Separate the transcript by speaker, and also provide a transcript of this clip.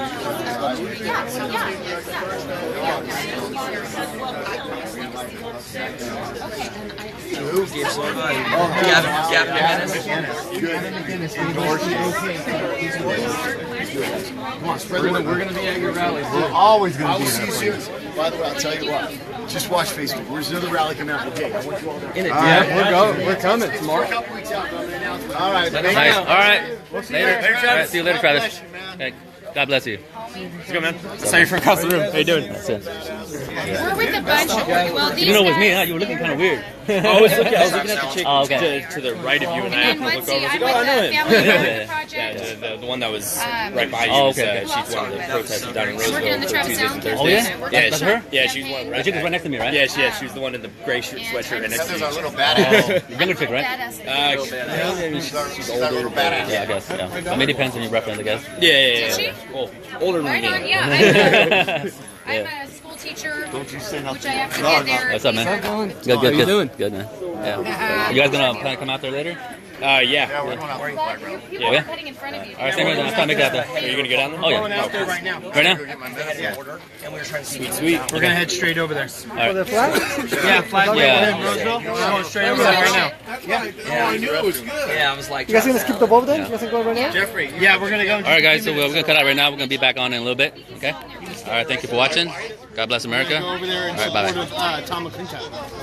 Speaker 1: Who gives one? Gavin, Gavin McGinnis.
Speaker 2: We're gonna, we're gonna be at your rally.
Speaker 3: We're always going
Speaker 4: I
Speaker 3: to
Speaker 4: will
Speaker 3: be
Speaker 4: see
Speaker 3: there.
Speaker 4: you soon. By the way, I'll tell you what. Just watch Facebook. Where's another rally coming out? Okay, I want you all there.
Speaker 1: In it,
Speaker 3: All
Speaker 1: dude.
Speaker 3: right, we're going. We're coming
Speaker 4: We're a
Speaker 3: tomorrow.
Speaker 4: couple weeks out, but I'm gonna announce it.
Speaker 3: All right. thank
Speaker 5: Nice.
Speaker 3: you.
Speaker 5: All right.
Speaker 3: you
Speaker 5: later.
Speaker 3: later, Travis.
Speaker 5: All right, see you later,
Speaker 4: God
Speaker 5: Travis.
Speaker 4: bless you, man.
Speaker 5: Hey, God bless you. Let's go, man.
Speaker 2: Sign you from across the room. How you doing?
Speaker 5: That's it.
Speaker 6: We're with a bunch of well, these
Speaker 5: You know, with me,
Speaker 6: guys-
Speaker 5: huh? You were looking kind of weird.
Speaker 2: I was looking, I was looking at the chick
Speaker 5: Oh, okay.
Speaker 2: to, to the right of you, and I
Speaker 6: And
Speaker 2: happened to look
Speaker 6: let's
Speaker 2: over. I
Speaker 6: see,
Speaker 2: was
Speaker 6: I'm
Speaker 2: like, oh, I know
Speaker 6: with the
Speaker 2: him.
Speaker 6: Family Garden
Speaker 2: Yeah,
Speaker 6: Project.
Speaker 2: the, the, the one that was
Speaker 6: Um,
Speaker 2: right by you.
Speaker 5: Oh,
Speaker 2: was,
Speaker 5: okay, okay.
Speaker 2: Uh, she's one of the protesters down in
Speaker 6: She's working
Speaker 2: Roseville.
Speaker 6: on the Travis
Speaker 2: Tuesdays and
Speaker 6: Allen
Speaker 2: Thursdays.
Speaker 5: campaign. Oh, yeah?
Speaker 2: Yeah,
Speaker 5: That's
Speaker 2: she-
Speaker 5: her?
Speaker 2: Yeah, she's one right
Speaker 5: The chick was
Speaker 2: back.
Speaker 5: right next to me, right?
Speaker 2: Yeah, she, yeah, she was the one in the gray shirt
Speaker 6: And
Speaker 2: sweatshirt and
Speaker 6: I'm
Speaker 2: next to
Speaker 4: Heather's
Speaker 2: me.
Speaker 4: our little badass.
Speaker 5: Oh, Younger chick, right?
Speaker 6: Badass.
Speaker 2: Uh,
Speaker 4: She's our- She's our little badass.
Speaker 5: Yeah, I guess. Yeah. I mean, it depends on your reference, I guess.
Speaker 2: yeah, yeah, yeah.
Speaker 6: Did she?
Speaker 2: yeah. Well, older than
Speaker 6: Right on,
Speaker 2: me.
Speaker 6: yeah. I'm a- I'm
Speaker 5: yeah.
Speaker 6: a school teacher, which I have to get there.
Speaker 5: What's up, man? Good, good,
Speaker 3: How you
Speaker 5: good.
Speaker 3: doing?
Speaker 5: Good, man. Yeah. You guys gonna plan to come out there later? Oh,
Speaker 2: Uh, yeah.
Speaker 4: Yeah, we're going out to the
Speaker 6: But you-
Speaker 4: playground.
Speaker 6: people
Speaker 5: Yeah.
Speaker 6: are cutting in front of you.
Speaker 5: All right, same here. Let's try to make that
Speaker 2: Are
Speaker 5: happen.
Speaker 2: you gonna go down there?
Speaker 5: Oh yeah.
Speaker 4: right now.
Speaker 5: Right now?
Speaker 4: Go get my medicine order.
Speaker 2: Sweet, sweet.
Speaker 7: We're gonna head straight over there.
Speaker 5: All right.
Speaker 7: Yeah, flag
Speaker 5: Yeah.
Speaker 7: yeah. Roseville. We're going straight over there right now.
Speaker 4: Oh, I knew it was good.
Speaker 1: Yeah, I was like,
Speaker 3: You guys going to skip the boat then? You guys going to go right now?
Speaker 7: Jeffrey. Yeah, we're gonna go.
Speaker 5: All right, guys. So we're gonna cut out right now. We're gonna be back on in a little bit. Okay. All right. Thank you for watching. God bless America. All right. Bye.
Speaker 7: uh, Tom McClintock.